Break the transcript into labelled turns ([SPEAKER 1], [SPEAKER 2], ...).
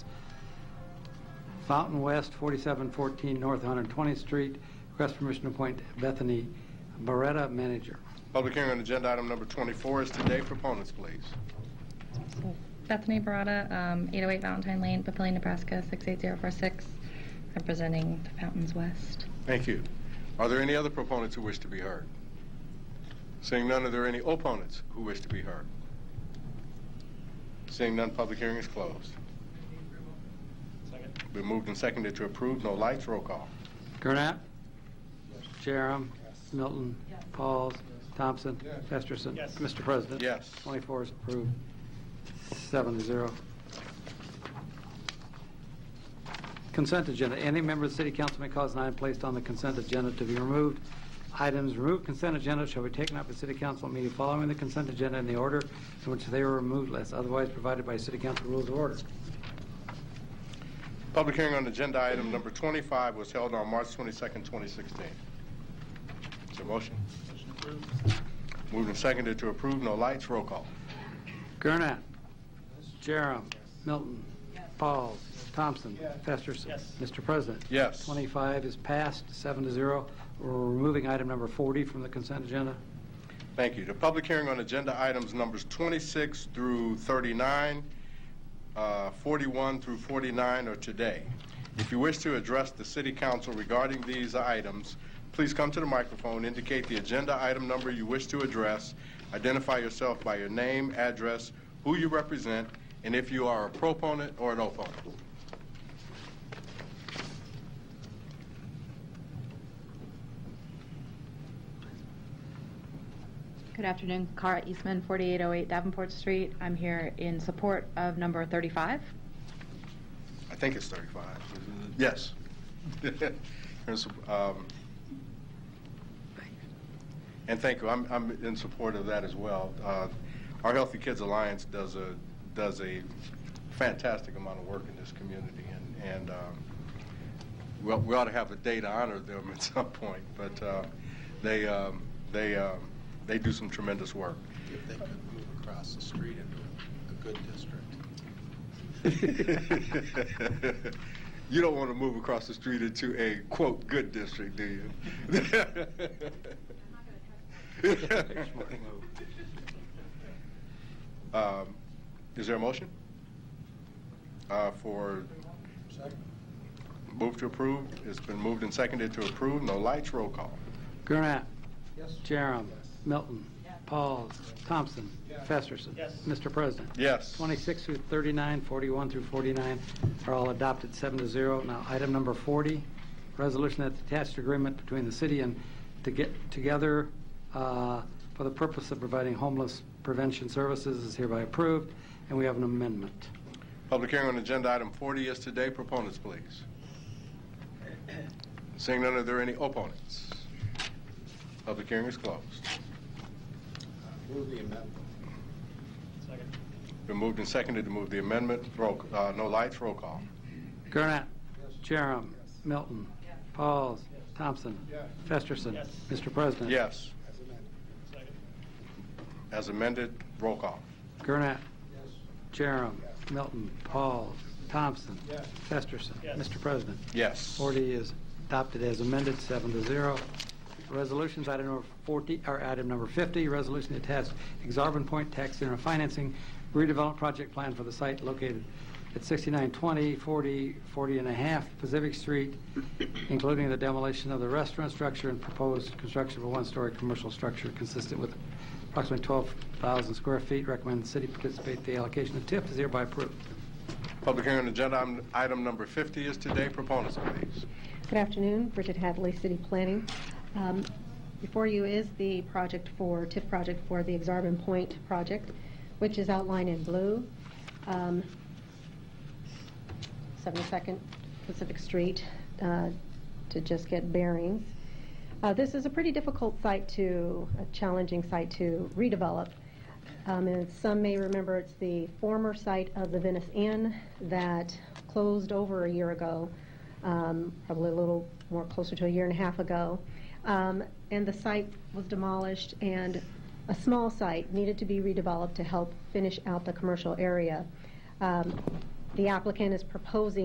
[SPEAKER 1] Fountain West, 4714 North 120th Street. Request permission to appoint Bethany Barretta, manager.
[SPEAKER 2] Public hearing on agenda item number 24 is today. Proponents, please.
[SPEAKER 3] Bethany Barada, um, 808 Valentine Lane, Papillion, Nebraska, 68046, representing the Fountains West.
[SPEAKER 2] Thank you. Are there any other proponents who wish to be heard? Seeing none, are there any opponents who wish to be heard? Seeing none, public hearing is closed. Been moved and seconded to approve. No lights. Roll call.
[SPEAKER 1] Gurnett. Jerem. Milton. Pauls. Thompson. Festerson.
[SPEAKER 4] Yes.
[SPEAKER 1] Mr. President.
[SPEAKER 2] Yes.
[SPEAKER 1] 24 is approved, seven to zero. Consent agenda. Any member of the city council may cause an item placed on the consent agenda to be removed. Items removed consent agenda shall be taken up at city council meeting following the consent agenda in the order in which they were removed, unless otherwise provided by city council rules of order.
[SPEAKER 2] Public hearing on agenda item number 25 was held on March 22nd, 2016. Is there a motion? Moved and seconded to approve. No lights. Roll call.
[SPEAKER 1] Gurnett. Jerem. Milton. Pauls. Thompson. Festerson.
[SPEAKER 4] Yes.
[SPEAKER 1] Mr. President.
[SPEAKER 2] Yes.
[SPEAKER 1] 25 is passed, seven to zero. We're removing item number 40 from the consent agenda.
[SPEAKER 2] Thank you. The public hearing on agenda items numbers 26 through 39, uh, 41 through 49 are today. If you wish to address the city council regarding these items, please come to the microphone, indicate the agenda item number you wish to address, identify yourself by your name, address, who you represent, and if you are a proponent or an opponent.
[SPEAKER 5] Good afternoon, Cara Eastman, 4808 Davenport Street. I'm here in support of number 35.
[SPEAKER 2] I think it's 35. Yes. There's, um, And thank you. I'm, I'm in support of that as well. Uh, Our Healthy Kids Alliance does a, does a fantastic amount of work in this community, and, and um, we ought- we ought to have a day to honor them at some point, but uh, they, um, they, um, they do some tremendous work.
[SPEAKER 6] if they could move across the street into a good district.
[SPEAKER 2] you
[SPEAKER 6] Uh,
[SPEAKER 2] don't want to move across the street into a quote good district, do you?
[SPEAKER 1] Smart move.
[SPEAKER 2] um, is there a motion uh, for move to approve? It's been moved and seconded to approve. No lights. Roll call.
[SPEAKER 1] Gurnett.
[SPEAKER 4] Yes.
[SPEAKER 1] Jerem. Milton. Pauls. Thompson. Festerson.
[SPEAKER 4] Yes.
[SPEAKER 1] Mr. President.
[SPEAKER 2] Yes.
[SPEAKER 1] 26 through 39, 41 through 49 are all adopted, seven to zero. Now, item number 40, resolution that the attached agreement between the city and to get together uh, for the purpose of providing homeless prevention services is hereby approved, and we have an amendment.
[SPEAKER 2] Public hearing on agenda item 40 is today. Proponents, please. Seeing none, are there any opponents? Public hearing is closed.
[SPEAKER 6] Move the amendment.
[SPEAKER 4] Second.
[SPEAKER 2] Been moved and seconded to move the amendment. Roll, uh, no lights, roll call.
[SPEAKER 1] Gurnett. Jerem. Milton. Pauls. Thompson. Festerson.
[SPEAKER 4] Yes.
[SPEAKER 1] Mr. President.
[SPEAKER 2] Yes.
[SPEAKER 4] Second.
[SPEAKER 2] As amended, roll call.
[SPEAKER 1] Gurnett. Jerem. Milton. Pauls. Thompson. Festerson.
[SPEAKER 4] Yes.
[SPEAKER 1] Mr. President.
[SPEAKER 2] Yes.
[SPEAKER 1] 40 is adopted as amended, seven to zero. Resolutions, item number 40, or item number 50, resolution to attach Exarban Point Tax Center Financing redevelopment project plan for the site located at 6920, 40, 40 and a half Pacific Street, including the demolition of the restaurant structure and proposed construction of a one-story commercial structure consistent with approximately 12,000 square feet. Recommend the city participate. The allocation of TIF is hereby approved.
[SPEAKER 2] Public hearing on agenda item- item number 50 is today. Proponents, please.
[SPEAKER 7] Good afternoon, Bridget Hadley, City Planning. Um, Before you is the project for, TIF project for the Exarban Point project, which is outlined in blue. Um, 72nd Pacific Street, uh, to just get bearings. Uh, This is a pretty difficult site to, a challenging site to redevelop. Um, And some may remember, it's the former site of the Venice Inn that closed over a year ago, um, probably a little more closer to a year and a half ago. Um, And the site was demolished, and a small site needed to be redeveloped to help finish out the commercial area. Um, The applicant is proposing